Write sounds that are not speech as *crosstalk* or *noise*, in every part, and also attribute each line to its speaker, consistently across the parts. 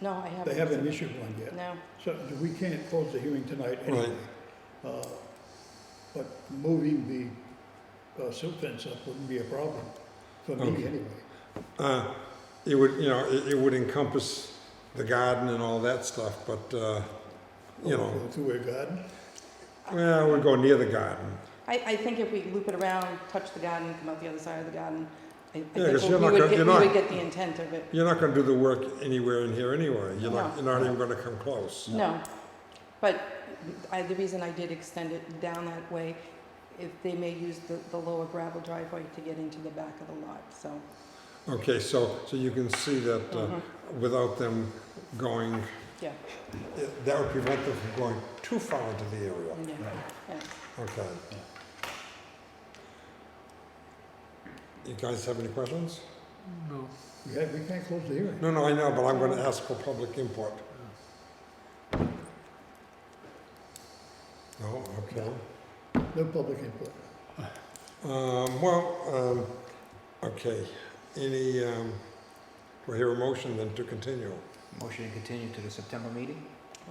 Speaker 1: No, I haven't.
Speaker 2: They haven't issued one yet.
Speaker 1: No,
Speaker 2: So we can't close the hearing tonight
Speaker 3: Right.
Speaker 2: anyway. Uh, But moving the uh, silt fence up wouldn't be a problem for me
Speaker 3: Okay.
Speaker 2: anyway.
Speaker 3: Uh, It would, you know, it, it would encompass the garden and all that stuff, but, uh, you know,
Speaker 2: Go Through a garden,
Speaker 3: well, we'd go near the garden.
Speaker 1: I, I think if we loop it around, touch the garden, come out the other side of the garden, I, I
Speaker 3: Yeah,
Speaker 1: think
Speaker 3: 'cause you're
Speaker 1: we
Speaker 3: not
Speaker 1: would
Speaker 3: gonna-
Speaker 1: get, we
Speaker 3: you're not-
Speaker 1: would get the intent of it.
Speaker 3: You're not gonna do the work anywhere in here anyway. You're
Speaker 1: No.
Speaker 3: not, you're not even gonna come close.
Speaker 1: No, but I, the reason I did extend it down that way, if they may use the, the lower gravel driveway to get into the back of the lot, so.
Speaker 3: Okay, so, so you can see that, uh,
Speaker 1: Mhm.
Speaker 3: without them going.
Speaker 1: Yeah.
Speaker 3: That would prevent them from going too far into the area.
Speaker 1: yeah, yeah.
Speaker 3: Okay. You guys have any questions?
Speaker 4: No.
Speaker 2: we ha- we can't close the hearing.
Speaker 3: No, no, I know, but I'm gonna ask for public input. No, Oh, okay.
Speaker 2: No public input.
Speaker 3: Um, well, um, okay, any, um, do I hear a motion then to continue?
Speaker 5: Motion to continue to the September meeting?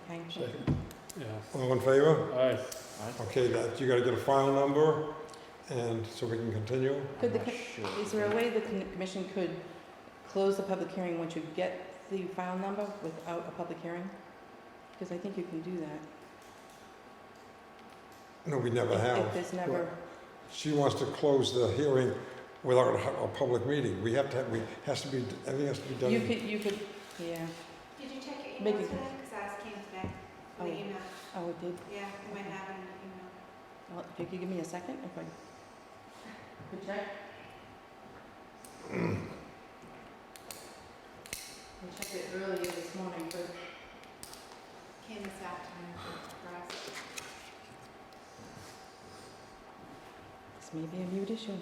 Speaker 1: Okay.
Speaker 2: Second.
Speaker 4: Yeah.
Speaker 3: All in favor?
Speaker 4: All right.
Speaker 5: Alright.
Speaker 3: Okay, that, you gotta get a file number, and so we can continue.
Speaker 1: Could the,
Speaker 5: I'm
Speaker 1: co-
Speaker 5: not Oh, sure.
Speaker 1: is there a way the con- commission could close the public hearing once you get the file number without a public hearing? Because I think you can do that.
Speaker 3: No, we never
Speaker 1: if-
Speaker 3: have.
Speaker 1: If there's never,
Speaker 3: She wants to close the hearing without a, hu- a public meeting. We have to, have- we, has to be, everything has to be done.
Speaker 1: you could, you could, yeah,
Speaker 6: Did you check your
Speaker 1: Make
Speaker 6: email
Speaker 1: it-
Speaker 6: today? Because ours came today,
Speaker 1: Oh.
Speaker 6: the email.
Speaker 1: oh, it did.
Speaker 6: Yeah, I might have it in the email.
Speaker 1: Well, if you could give me a second, if I could check. I checked it earlier this morning, but
Speaker 6: Came this afternoon for us.
Speaker 1: this may be a mute issue.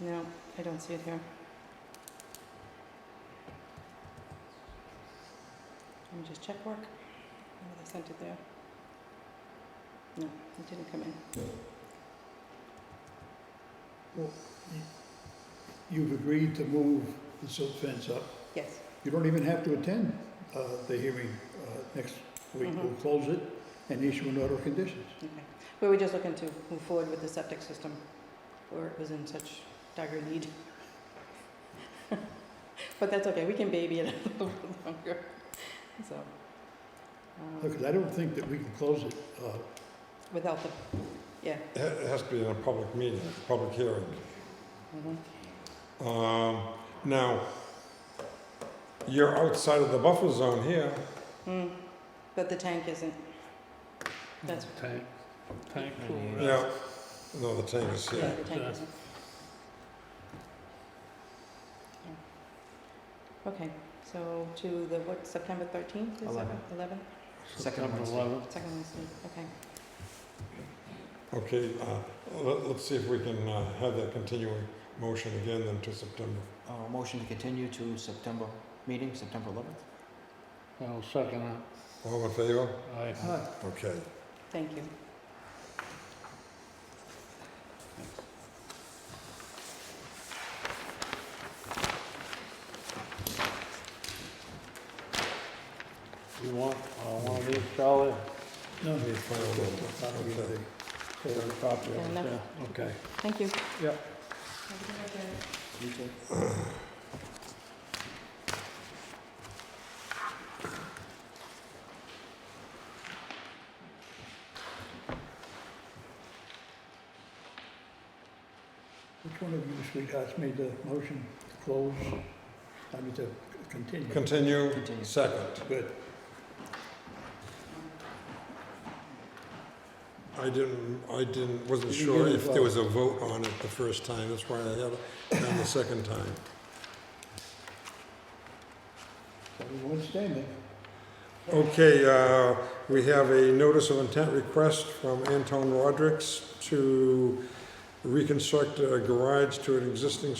Speaker 1: No, I don't see it here. Let me just check work. Maybe they sent it there. No, it didn't come in.
Speaker 2: You've agreed to move the silt fence up.
Speaker 1: Yes,
Speaker 2: You don't even have to attend uh, the hearing uh, next week.
Speaker 5: Mm-hmm.
Speaker 1: Mhm.
Speaker 2: We'll close it and issue an order of conditions.
Speaker 1: okay. We were just looking to move forward with the septic system where it was in such dire need. *laughs* But that's okay, we can baby it *laughs* a little bit longer, so. um,
Speaker 2: Because I don't think that we can close it uh,
Speaker 1: Without the, yeah.
Speaker 3: It ha- it has to be in a public meeting, a public hearing.
Speaker 1: mhm.
Speaker 3: Um, now, you're outside of the buffer zone here.
Speaker 1: Mm, But the tank isn't. That's,
Speaker 4: Tank. Tank
Speaker 5: Yeah.
Speaker 4: cooler.
Speaker 3: Yeah, no, the tank is
Speaker 1: yeah,
Speaker 3: here.
Speaker 1: the tank
Speaker 4: Yeah.
Speaker 1: isn't. Okay, so to the, what, September thirteenth?
Speaker 5: Eleven.
Speaker 1: Eleven?
Speaker 5: Second
Speaker 4: Number
Speaker 5: Wednesday.
Speaker 4: eleven.
Speaker 1: Second Wednesday, okay.
Speaker 3: Okay, uh, let, let's see if we can, uh, have that continuing motion again then to September.
Speaker 5: Uh, motion to continue to September meeting, September eleventh?
Speaker 4: I'll second it.
Speaker 3: All in favor?
Speaker 4: Aye.
Speaker 2: Uh,
Speaker 3: Okay.
Speaker 1: Thank you.
Speaker 4: You want, I want these, Charlie?
Speaker 2: No,
Speaker 3: Need final number.
Speaker 2: copy of the-
Speaker 4: Copy
Speaker 1: Fair enough.
Speaker 4: Okay.
Speaker 1: Thank you.
Speaker 4: Yeah.
Speaker 5: You too?
Speaker 2: Which one of you sweethearts made the motion to close, I mean, to continue?
Speaker 3: Continue,
Speaker 5: Continue.
Speaker 3: second.
Speaker 2: Good.
Speaker 3: I didn't, I didn't, wasn't
Speaker 2: You
Speaker 3: sure
Speaker 2: didn't
Speaker 3: if there was a vote on it the first time, that's why I had it done the second time.
Speaker 2: Everyone standing.
Speaker 3: Okay, uh, we have a notice of intent request from Anton Rodrick's to reconstruct a garage to an existing